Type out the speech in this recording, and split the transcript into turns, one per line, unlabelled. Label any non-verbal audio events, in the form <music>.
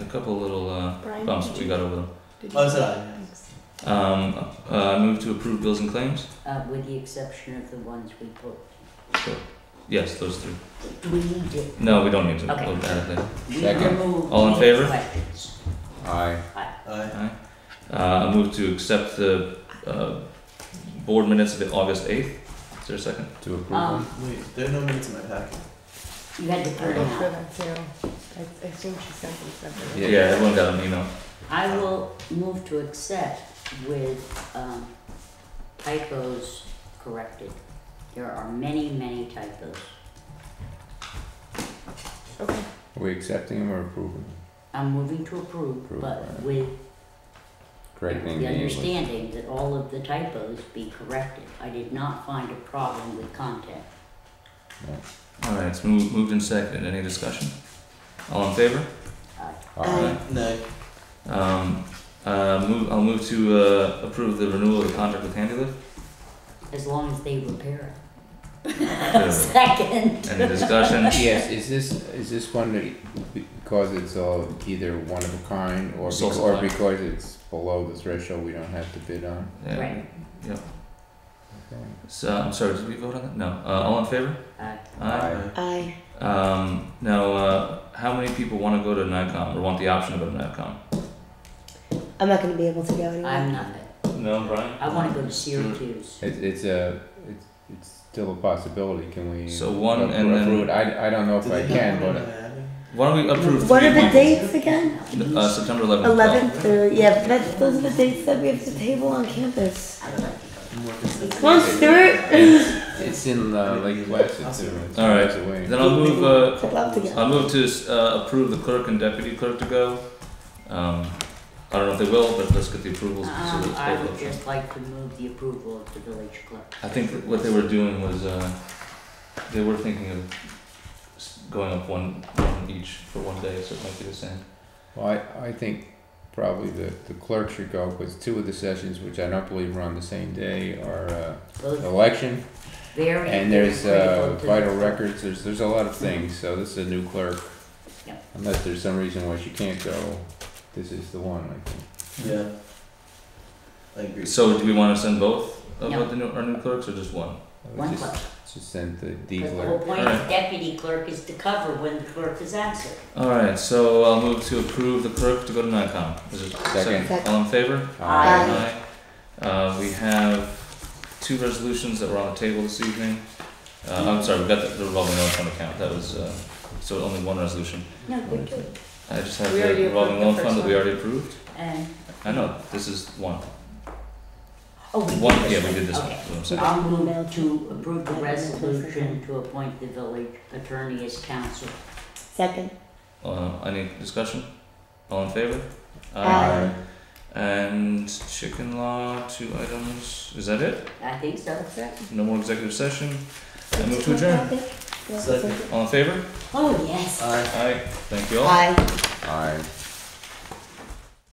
couple little uh,
Brian,
bumps
did
we
you-
got over them.
did
Oh,
you-
is it I?
Thanks.
Um, uh, move to approve bills and claims.
uh, with the exception of the ones we put.
So, yes, those three.
Do we need to,
No, we don't need to.
Okay.
We'll add it later.
we
Second.
remove
All in
any
favor?
questions.
Aye.
Aye.
Aye. Uh, I move to accept the uh, board minutes of the August eighth. Is there a second?
To approve
Um,
them.
Wait, there are no minutes in my packet.
you had to put
I
it
looked for
out.
them too. I, I assume she sent them separately.
Yeah.
everyone got an email.
I will move to accept with, um, typos corrected. There are many, many typos.
Okay,
Are we accepting them or approving them?
I'm moving to approve,
Approve,
but
right.
with
Correcting
the
the English.
understanding that all of the typos be corrected. I did not find a problem with content.
All right, it's moved, moved and seconded. Any discussion? All in favor?
Uh,
Aye.
No.
Um, uh, move, I'll move to uh, approve the renewal of the contract with Handylift.
as long as they repair it.
Good.
<laughs> Second.
Any discussion?
<laughs> Yes, is this, is this one that- because it's all either one of a kind or
Sole
bec- or
supply.
because it's below the threshold, we don't have to bid on?
Yeah.
Right.
Okay.
So I'm sorry. Did we vote on that? No. Uh, all in favor?
Uh,
Aye.
Aye.
I,
Um, now, uh, how many people want to go to NICOM or want the option to go to NICOM?
I'm not gonna be able to go anyway.
I'm not,
No, Brian.
I wanna go to Syracuse.
It's, it's a, it's, it's still a possibility, can we?
So one
appro-
and then-
approve it? I, I don't know if
Do
I
they
can,
have one
but,
in Miami?
Why don't we approve
What
three
are the
people?
dates again?
Uh, September 11th.
Eleventh, yeah, that's, those are the dates that we have to table on campus.
I'd like to go.
I'm working since-
Come on, Stuart.
it's in, uh, Lake Placid, so it's
All right.
miles away.
Then I'll move. Uh,
I'd love to
I'll
go.
move to uh, approve the clerk and deputy clerk to go. Um, I don't know if they will, but let's get the approvals. so
Um,
let's
I
vote.
would just like to move the approval of the village clerk.
I think that what they were doing was uh, they were thinking of s- going up one, one each for one day, so it might be the same.
Well, I, I think probably the, the clerk should go, because two of the sessions, which I don't believe are on the same day, are, uh,
Both
election,
very
and there's, uh,
critical to the-
vital records, there's, there's a lot of things, so this is a new clerk.
Yeah.
Unless there's some reason why she can't go, this is the one, I think.
Yeah. I agree.
So do we want to send both of
No.
the new, our new clerks or just one?
I would
One
just-
clerk,
Just send the D
'cause the
clerk.
whole point of deputy clerk is to cover when the clerk is absent.
All right, so I'll move to approve the clerk to go to NICOM. Is it
Second.
All in favor?
Aye.
Aye.
Uh, we have two resolutions that were on the table this evening. Uh, I'm sorry, we got the, the revolving loan fund account. That was uh, so only one resolution.
No, good, good.
I just have
We already
the revolving
approved the
loan
first
fund that we
one.
already approved.
And,
I know this is one.
oh, we did
One,
this
yeah, we
one.
did this one,
Okay.
is what I'm saying.
I'll move to approve the resolution to appoint the village attorney as counsel.
Second,
Uh, any discussion? All in favor?
Aye.
And chicken law, two items, is that it?
I think so.
that's it.
No more executive session? I move to adjourn.
Yeah,
Second.
All in favor?
Oh, yes.
Aye.
Aye, thank you all.
Aye.
Aye.